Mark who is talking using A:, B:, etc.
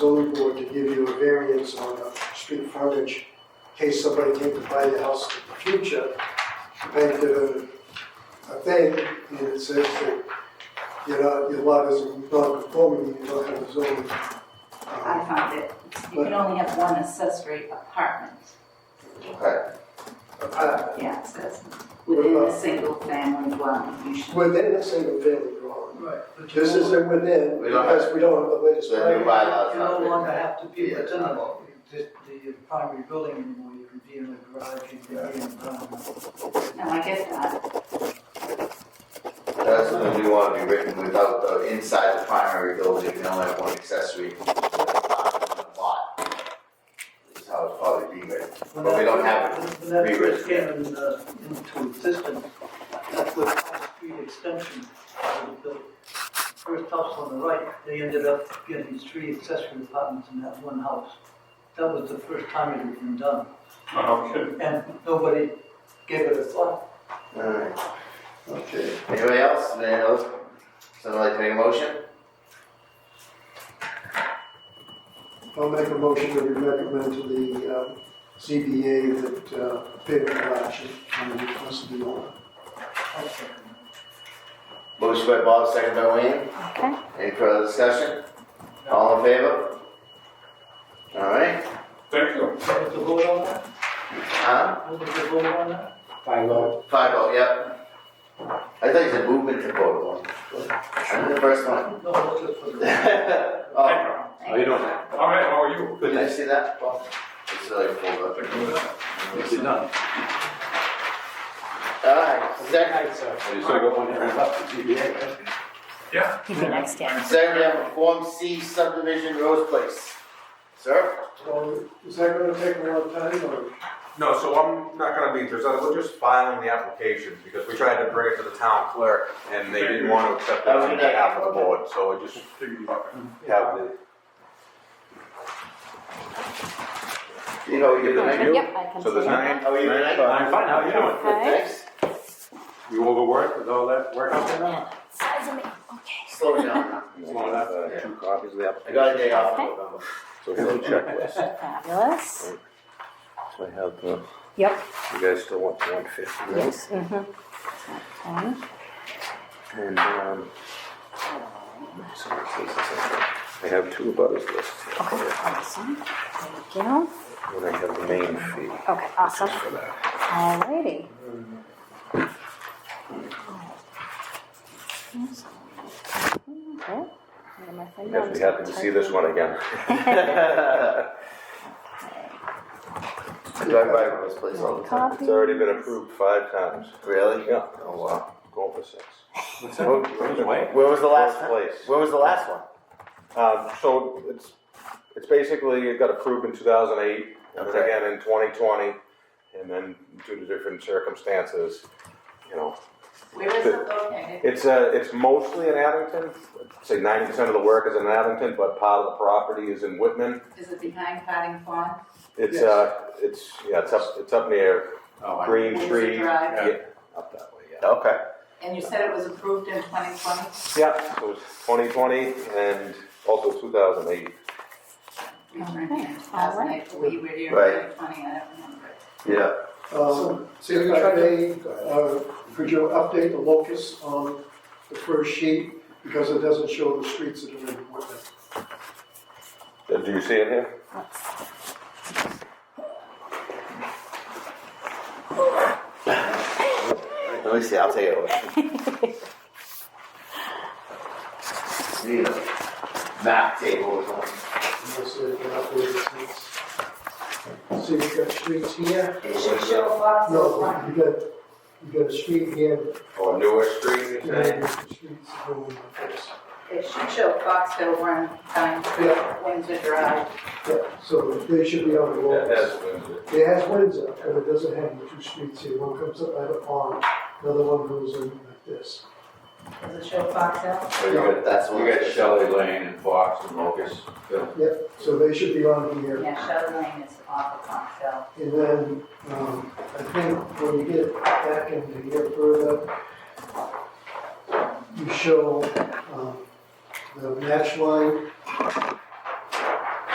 A: street frontage, in case somebody came to buy the house in the future, painted a, a thing, and it says that you're not, your lot is non-conforming, you don't have a zoning.
B: I
A: um,
B: found it. You can only have one accessory apartment.
C: Okay,
A: apartment
B: Yeah, it says within a single family dwelling. You should-
A: Within a single family dwelling.
D: Right. but you
A: This
D: no
A: isn't within,
C: We don't
A: because we don't have the latest.
C: it's the new
A: plan.
C: bylaws.
D: longer- You no
C: not
D: longer
C: written.
D: have to be
C: Yeah,
D: within
C: not
D: the,
C: all.
D: the primary building anymore, you can be in the garage, you can be in um, the barn.
B: No, I get that.
C: That's what we want to be written without the, inside the primary building, you can only have one accessory lot. Is how it's probably be written. But we don't have
D: it. When that
C: rewritten
D: first came in, uh, into existence, that's what Elm Street Extension, was built. first house on the right, they ended up getting these three accessory apartments in that one house. That was the first time it had been done,
E: Okay.
D: and nobody gave it a thought.
C: Alright, okay. Anybody else, Any else? Someone like to make a motion?
A: I'll make a motion that we recommend to the uh, ZBA that uh, favorable action on the request of the owner.
C: Motion by Bob, second by Wayne.
B: Okay.
C: Any further discussion? All in favor? Alright,
E: Thank you.
D: Was the vote on that,
C: huh?
D: was the vote on that?
F: By law,
C: Five oh, yep. I thought you said movement to vote on. I'm the first one.
D: No, that's just for the.
C: Oh,
F: oh, you don't have,
E: All right, how are you?
C: did I see that? Well, It's really full of.
F: you did not.
C: Alright, second,
F: That's, uh, so you still got one hand left, the GBA, right?
E: Yeah.
G: He's the next guy.
C: second we have a Form C subdivision Rose Place. Sir?
A: So is that gonna take a long time or?
H: No, so I'm not gonna be presented, we're just filing the application, because we tried to bring it to the town clerk, and they didn't want to accept it on behalf of the board, so I just have the.
C: You know, you're the
G: Okay,
C: menu?
G: Yep, I can
H: So
G: see
H: there's
G: that.
H: nine,
C: How are you tonight?
F: I'm fine, how are you doing?
G: Hi.
C: Thanks.
F: You overworked with all that work out there now?
G: Size of me, okay.
C: Slow down now.
F: Small enough.
I: Uh,
C: Two copies of the application. I got a day off in
G: Okay.
C: November.
I: So we have a checklist.
G: Fabulous.
I: So I have, the-
G: Yep.
I: you guys still want the one fifty, right?
G: Yes, mm-hmm. Okay.
I: And, um, so this is essential. I have two butters lists here,
G: Awesome. Thank you.
I: and I have the main fee
G: Okay, awesome.
I: for that.
G: Alrighty. Okay. What am I thinking?
I: Guess we happen to see this one again.
C: Drive by Rose Place all the time.
G: Copy.
I: It's already been approved five times.
C: Really?
I: Yeah,
C: Oh, wow.
I: going for six.
F: What's that? Where's Wayne?
C: Where was the last
I: Rose
C: time?
I: Place.
C: Where was the last one?
I: Um, so it's, it's basically, it got approved in two thousand eight, and then
C: Okay.
I: again in twenty twenty, and then due to different circumstances, you know,
B: Where is it located?
I: It's uh, it's mostly in Abington. I'd Say ninety percent of the work is in Abington, but part of the property is in Whitman.
B: Is it behind Padding Pond?
I: It's
A: Yes.
I: uh, it's yeah, it's up it's up near
C: Oh, I-
I: Green
B: Where's the
I: Tree.
B: drive?
I: Yeah, up that way. Yeah.
C: Okay.
B: And you said it was approved in 2020?
I: Yeah. So it's 2020 and also 2008.
B: We were in here in
G: Oh, All
B: 2008, we were here in
C: Right.
B: 2020, I don't remember.
C: Yeah.
A: Um, So if I may, uh, could you update the locus on the first sheet? Because it doesn't show the streets that are in Whitman.
I: Uh, Do you see it here?
G: Let's
C: Let me see, I'll take it away. Need a map table or something.
A: Unless they can update the streets. See, you've got streets here?
B: It should show Fox
A: No,
B: Run.
A: you got, you got a street here.
C: Or newer street,
A: and
C: you're saying?
A: then streets going in this.
B: It should show Fox Hill Run, Pine Street, Windsor Drive.
A: Yeah, So they should be on the
C: That-
A: locus.
C: that's Windsor.
A: It has Windsor, but it doesn't have the two streets here. One comes up by the pond, another one goes in like this.
B: Does it show Fox Hill?
C: So you got, that's one.
E: You got Shelley Lane and Fox and Locust.
A: So they should be on here.
B: Yeah, Shuttle Lane is off of Fox Hill.
A: And then, um, I think when you get back into here further, you show, um, the match line